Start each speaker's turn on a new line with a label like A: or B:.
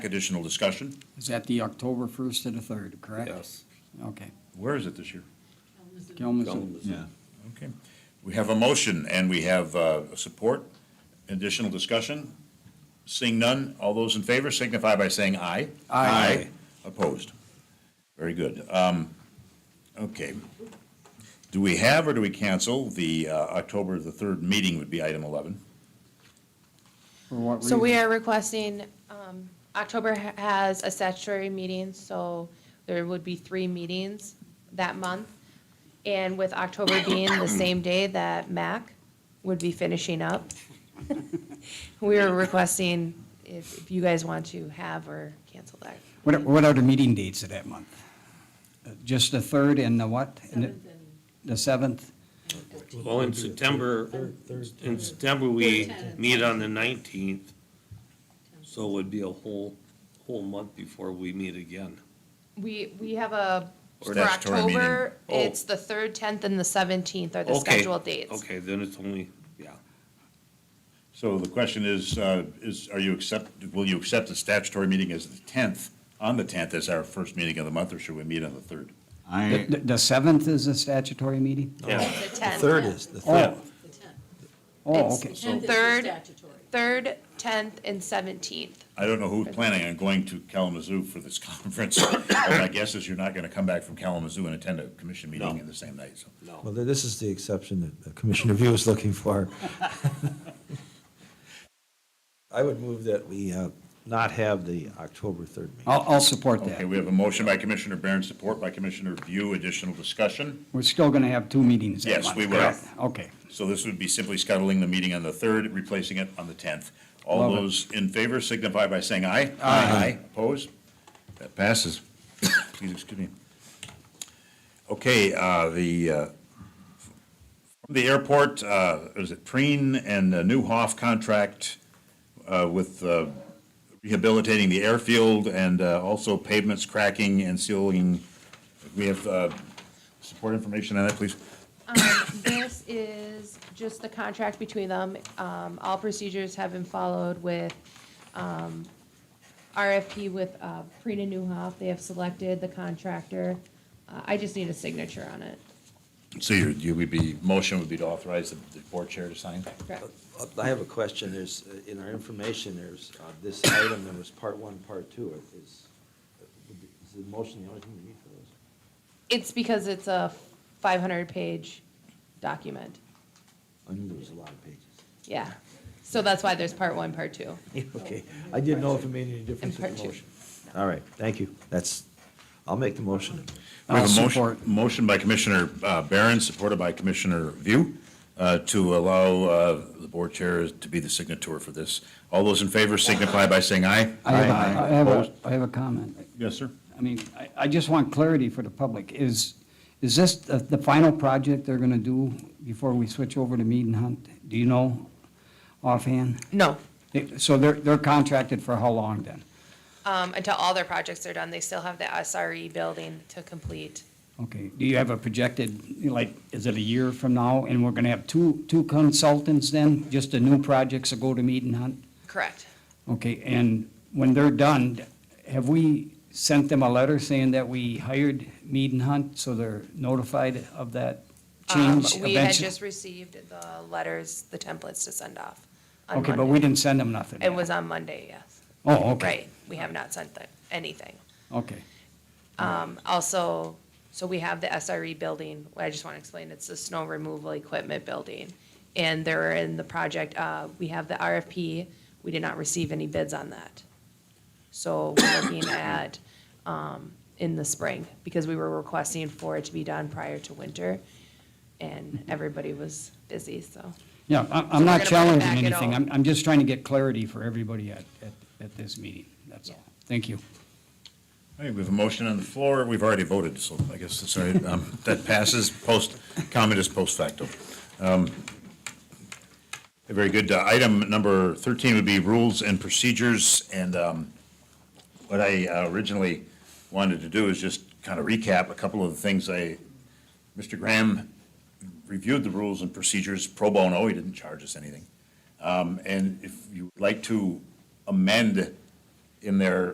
A: Additional discussion?
B: Is that the October 1st to the 3rd, correct?
C: Yes.
B: Okay.
A: Where is it this year?
B: Kalamazoo.
C: Kalamazoo.
A: Okay. We have a motion and we have uh, support. Additional discussion? Seeing none, all those in favor signify by saying aye.
B: Aye.
A: Opposed? Very good. Um, Okay. Do we have or do we cancel the uh, October the 3rd meeting would be item 11?
B: For what reason?
D: So we are requesting, um, October ha- has a statutory meeting, so there would be three meetings that month. And with October being the same day that MAC would be finishing up, we are requesting if if you guys want to have or cancel that.
B: What are- What are the meeting dates of that month? Uh, Just the 3rd and the what? And the- The 7th?
E: Well, in September, in September, we meet on the nineteenth, so it would be a whole, whole month before we meet again.
D: We, we have a, for
A: Statutory meeting.
D: October,
E: Oh.
D: it's the 3rd, 10th, and the 17th are the
E: Okay,
D: scheduled dates.
E: Okay, then it's only, yeah.
A: So the question is, uh, is, are you accept, will you accept the statutory meeting as the 10th, on the 10th as our first meeting of the month, or should we meet on the 3rd?
B: The-
C: I,
B: The the 7th is a statutory meeting?
E: Yeah.
D: The
F: The
D: 10th.
F: third is, the
B: Oh,
F: third,
G: The tenth.
B: oh,
D: It's-
B: okay.
G: The tenth is the
D: Third.
G: statutory.
D: 3rd, 10th, and 17th.
A: I don't know who's planning on going to Kalamazoo for this conference, but my guess is you're not going to come back from Kalamazoo and attend a commission meeting
E: No.
A: in the same night, so.
E: No.
F: well, th- this is the exception that Commissioner View is looking for. I would move that we uh, not have the October 3rd meeting.
B: I'll, I'll support
A: Okay,
B: that.
A: we have a motion by Commissioner Barron, support by Commissioner View, additional discussion.
B: We're still going to have two meetings that
A: Yes,
B: month,
A: we will.
B: correct? Okay.
A: So this would be simply scuttling the meeting on the 3rd, replacing it on the 10th. All
B: Love it.
A: those in favor signify by saying aye. Aye. Opposed? That passes. Please excuse me. Okay, uh, the, uh, from the airport, uh, is it Preen and the Newhoff contract uh, with uh, rehabilitating the airfield and uh, also pavements cracking and sealing? We have uh, support information on that, please?
D: Um, This is just the contract between them. Um, All procedures have been followed with um, RFP with uh, Prina Newhoff. They have selected the contractor. Uh, I just need a signature on it.
A: So your, you would be, motion would be to authorize the the board chair to sign?
D: Correct.
F: Uh, I have a question, there's, uh, in our information, there's uh, this item, there was part one, part two, It is, is the motion the only thing we need for those?
D: It's because it's a 500-page document.
F: I knew there was a lot of pages.
D: Yeah. So that's why there's part one, part two.
F: Okay, I didn't know if it made any difference
D: And part
F: with the
D: two.
F: motion. All right, thank you, that's, I'll make the motion.
A: We have
B: I'll
A: a motion-
B: support.
A: Motion by Commissioner uh, Barron, supported by Commissioner View, uh, to allow uh, the board chair to be the signator for this. All those in favor signify by saying aye.
B: I have a- I have
A: Opposed?
B: a, I have a comment.
A: Yes, sir.
B: I mean, I, I just want clarity for the public. Is, is this the, the final project they're going to do before we switch over to Mead and Hunt? Do you know offhand?
D: No.
B: They- So they're, they're contracted for how long then?
D: Um, Until all their projects are done, they still have the SRE building to complete.
B: Okay, do you have a projected, like, is it a year from now, and we're gonna have two, two consultants then, just the new projects that go to meet and hunt?
D: Correct.
B: Okay, and when they're done, have we sent them a letter saying that we hired meet and hunt, so they're notified of that
D: Um,
B: change
D: We had
B: eventually?
D: just received the letters, the templates to send off. on
B: Okay, but
D: Monday.
B: we didn't send them nothing?
D: It was on Monday, yes.
B: Oh, okay.
D: Right, we have not sent them anything.
B: Okay,
D: Um, Also, so we have the SRE building, I just want to explain, it's the snow removal equipment building. And they're in the project, uh, we have the RFP, we did not receive any bids on that. So we're looking at, um, in the spring, because we were requesting for it to be done prior to winter, and everybody was busy, so.
B: yeah, I'm,
D: So
B: I'm not
D: we're gonna bring it
B: challenging
D: back at
B: anything,
D: all.
B: I'm, I'm just trying to get clarity for everybody at, at, at this meeting, that's all. Thank you.
A: All right, we have a motion on the floor. We've already voted, so I guess, that's all right. Um, that passes post, comment is post facto. Um, Very good. Uh, Item number 13 would be rules and procedures, and um, what I uh, originally wanted to do is just kind of recap a couple of the things I, Mr. Graham reviewed the rules and procedures pro bono. He didn't charge us anything. Um, And if you would like to amend in there